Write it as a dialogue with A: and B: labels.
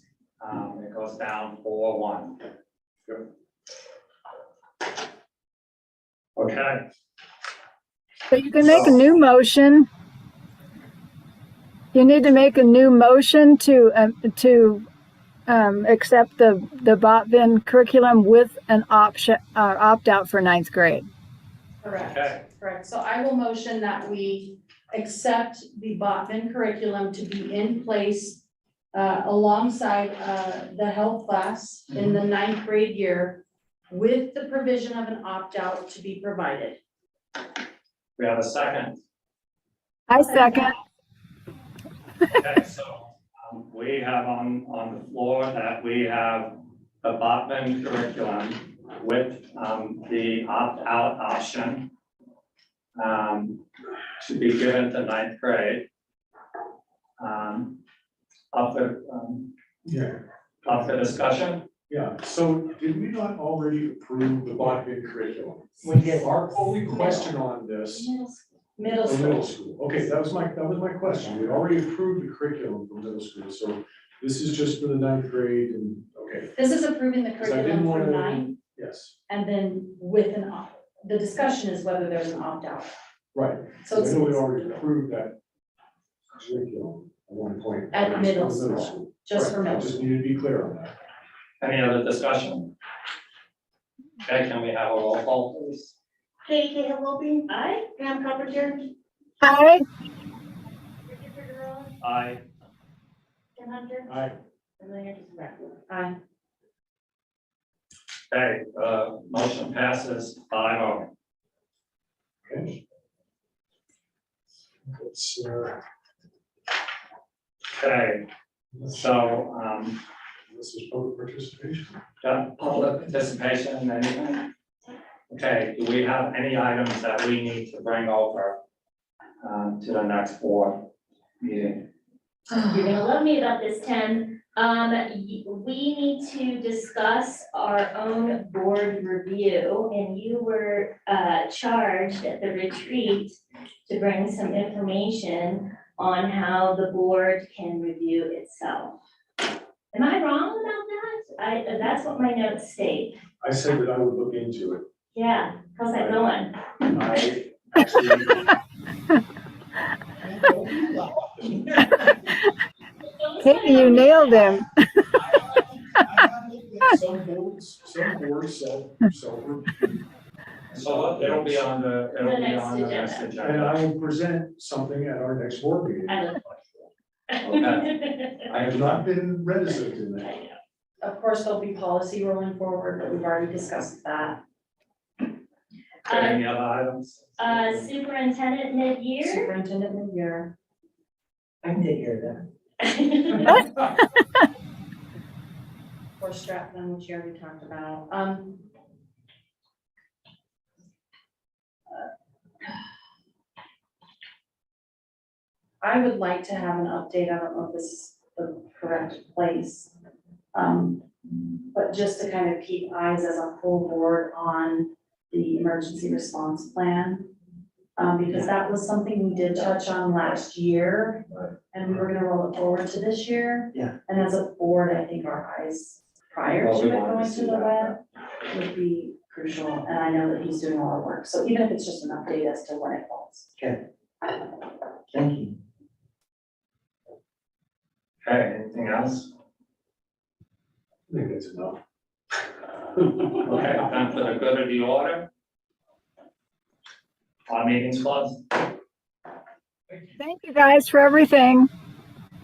A: Um, It goes down four one. Okay,
B: But you can make a new motion. You need to make a new motion to, um, to, um, accept the, the Botvin curriculum with an option, uh, opt-out for ninth grade.
A: Okay.
C: Correct, correct. So I will motion that we accept the Botman curriculum to be in place uh, alongside uh, the health class in
D: Mm-hmm.
C: the ninth grade year with the provision of an opt-out to be provided.
A: we have a second.
B: I second.
A: Okay, so um, we have on, on the floor that we have the Botman curriculum with um, the opt-out option um, to be given to ninth grade. Um, Up for, um,
D: Yeah,
A: up for discussion?
D: yeah, so did we not already approve the Botkin curriculum?
E: We did.
D: Our only question on this,
C: Middle
D: the
C: school.
D: middle school, okay, that was my, that was my question, we already approved the curriculum for middle school, so this is just for the ninth grade and, okay,
C: This is approving the
D: Because I didn't
C: curriculum for
D: wanna-
C: nine
D: yes,
C: and then with an opt, the discussion is whether there's an opt-out.
D: right.
C: So
D: So I
C: it's.
D: know we already approved that curriculum at one point.
C: At
D: It's for
C: middle
D: the
C: school, Just for
D: Right, I
C: middle.
D: just need to be clear on that.
A: Any other discussion? Okay, can we have a roll call, please?
F: Katie Cahill Wilson,
C: Aye.
F: Pam Carpenter,
B: Aye.
F: Richard Figueroa,
A: Aye.
F: Tim Hunter,
D: I,
F: and Mayor DiSenzo.
C: Aye.
A: Okay, uh, motion passes five oh.
D: okay. It's, uh,
A: Okay, so, um,
D: this is public participation.
A: done public participation and anything? Okay, do we have any items that we need to bring over, um, to the next board meeting?
F: You're gonna love me about this, Tim. Um, y- we need to discuss our own board review, and you were, uh, charged at the retreat to bring some information on how the board can review itself. Am I wrong about that? I, that's what my notes state.
D: I said that I would look into it.
F: Yeah, how's that going?
D: I actually,
B: Katie, you nailed him.
D: some boards, some boards sell, sell,
A: So it'll be on the, it'll
F: The
A: be
F: next
A: on the next
D: and
A: agenda.
D: I will present something at our next board meeting.
F: I look forward to it.
D: I have not been reticent in
F: I
D: that.
F: know.
C: Of course, there'll be policy rolling forward, but we've already discussed that.
A: Okay, Any other items?
F: Uh, superintendent mid-year?
C: Superintendent mid-year.
E: I did hear
C: for Stratton, which you already talked about, um. I would like to have an update, I don't know if this is the correct place. Um, but just to kind of keep eyes as a full board on the emergency response plan. Um, because that was something we did touch on last year. And we were gonna roll it forward to this year.
E: Yeah.
C: And as a board, I think our eyes prior
A: Well,
C: to
A: we
C: it
A: wanted to
C: going
A: see
C: to the web
A: that.
C: would be crucial, and I know that he's doing a lot of work, so even if it's just an update as to when it falls.
E: that. Thank you.
A: Okay, anything else?
D: I think that's enough.
A: Okay, then for the good of the order. Our meeting's closed.
B: Thank you guys for everything.